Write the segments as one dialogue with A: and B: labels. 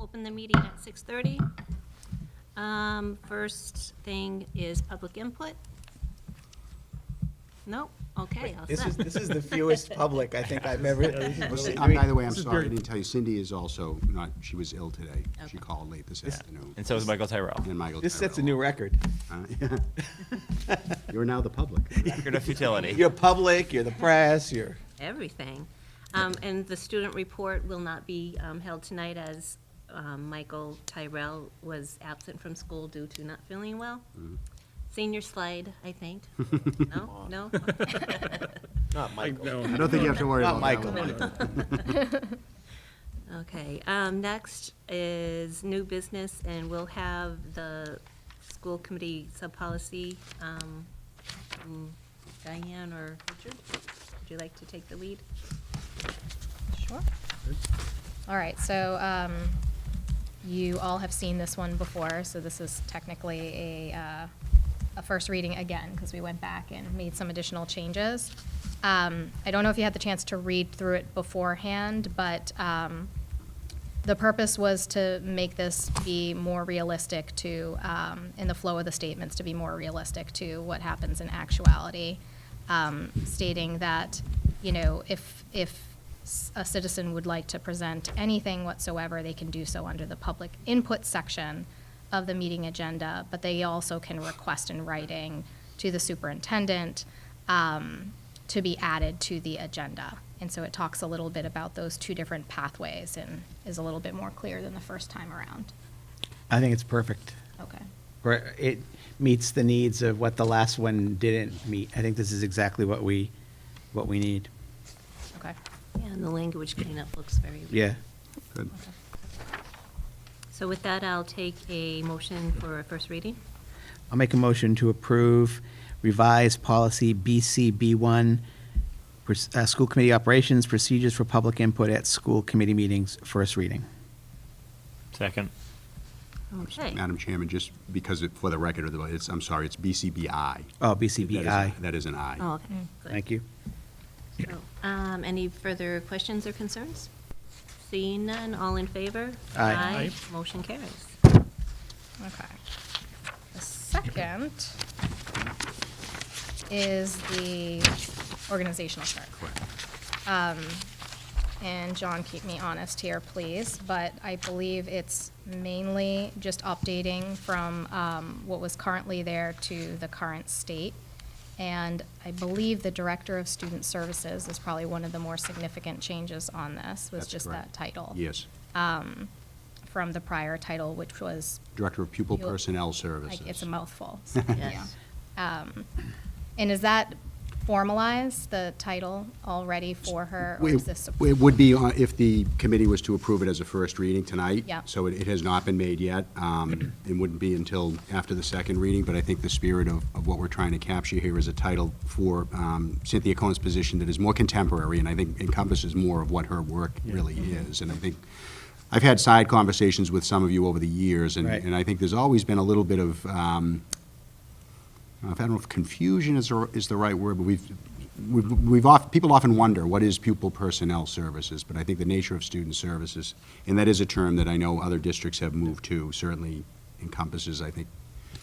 A: open the meeting at 6:30. Um, First thing is public input. Nope, okay, all
B: This is,
A: set.
B: this is the fewest public I think I've ever.
C: Well,
B: This
C: see,
B: is
C: I'm- By the way, I'm
D: This is
C: sorry, I
D: very-
C: didn't tell you, Cindy is also not, she was ill today. She called late this afternoon.
E: And so is Michael Tyrell.
C: And Michael.
B: This sets a new
C: Tyrell.
B: record.
C: Uh, yeah. You're now the public.
E: Record of futility.
B: You're public, you're the press, you're.
A: Everything. Um, And the student report will not be um, held tonight as um, Michael Tyrell was absent from school due to not feeling well. Senior slide, I think. No, no?
B: Not Michael.
C: I don't think you have to worry
B: Not
C: about that
B: Michael.
C: one.
A: Okay, um, next is new business, and we'll have the school committee sub-policy. um, from Diane or Richard, would you like to take the lead?
F: Sure. All right, so um, you all have seen this one before, so this is technically a, uh, a first reading again, because we went back and made some additional changes. Um, I don't know if you had the chance to read through it beforehand, but um, the purpose was to make this be more realistic to, um, in the flow of the statements, to be more realistic to what happens in actuality, um, stating that, you know, if, if s- a citizen would like to present anything whatsoever, they can do so under the public input section of the meeting agenda, but they also can request in writing to the superintendent um, to be added to the agenda. And so it talks a little bit about those two different pathways and is a little bit more clear than the first time around.
D: I think it's perfect.
F: Okay.
D: Or It meets the needs of what the last one didn't meet. I think this is exactly what we, what we need.
F: Okay.
A: Yeah, and the language cleanup looks very.
D: Yeah.
C: Good.
A: So with that, I'll take a motion for a first reading.
D: I'll make a motion to approve revised policy BCB1, pers- uh, school committee operations, procedures for public input at school committee meetings, first reading.
E: Second.
A: Okay.
C: Madam Chairman, just because, it- for the record of the, it's, I'm sorry, it's BCBI.
D: Oh,
C: That is-
D: BCBI.
C: That is an I.
A: Oh, okay. good.
D: Thank you.
A: So, Um, any further questions or concerns? Seeing none, all in favor?
D: Aye.
A: Aye. Motion carries.
F: Okay. The second is the organizational chart.
C: Correct.
F: and John, keep me honest here, please, but I believe it's mainly just updating from um, what was currently there to the current state. And I believe the Director of Student Services is probably one of the more significant changes on this, was
C: That's
F: just
C: correct.
F: that title.
C: Yes.
F: From the prior title, which was,
C: Director of Pupil
F: You'll-
C: Personnel
F: like,
C: Services.
F: it's a mouthful. so, yeah. Um, And is that formalized, the title, already for her? or is this-
C: It it would be uh, if the committee was to approve it as a first reading tonight.
F: Yeah.
C: So it it has not been made yet. um, It wouldn't be until after the second reading, but I think the spirit of of what we're trying to capture here is a title for um, Cynthia Cohen's position that is more contemporary and I think encompasses more of what her work really is. And I think, I've had side conversations with some of you over the years, and
D: Right.
C: and I think there's always been a little bit of, um, I don't know if confusion is, the- is the right word, but we've, we've, we've oft, people often wonder, what is pupil personnel services? But I think the nature of student services, and that is a term that I know other districts have moved to, certainly encompasses, I think,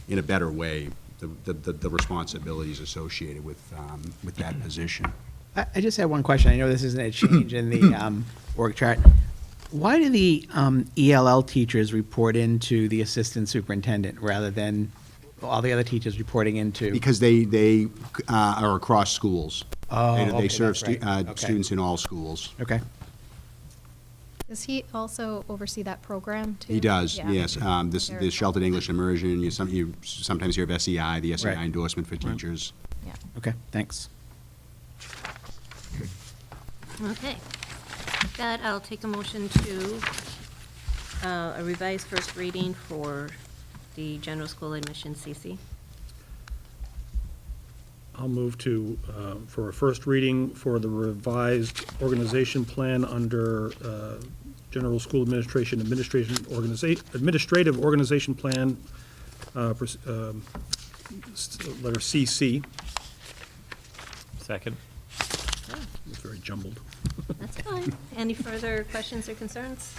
C: in a better way, the, the- the, the responsibilities associated with, um, with that position.
D: I, I just had one question. I know this isn't a change in the um, org chart. Why do the um, ELL teachers report into the assistant superintendent rather than all the other teachers reporting into?
C: Because they, they uh, are across schools.
D: Oh,
C: They-
D: okay,
C: They
D: that's
C: serve stu-
D: right.
C: uh,
D: Okay.
C: students in all schools.
D: Okay.
F: Does he also oversee that program, too?
C: He does,
F: Yeah.
C: yes. Um, This,
F: Very
C: the
F: cool.
C: sheltered English immersion, you some, you sometimes hear of SEI, the SEI
D: Right.
C: endorsement for teachers.
F: Yeah.
D: Okay. Thanks.
A: Okay. With that, I'll take a motion to uh, a revised first reading for the general school admission CC.
G: I'll move to, uh, for a first reading for the revised organization plan under uh, General School Administration Administration Organization, Administrative Organization Plan, uh, pers- um, s- letter CC,
E: Second.
G: it's very jumbled.
A: That's fine. Any further questions or concerns?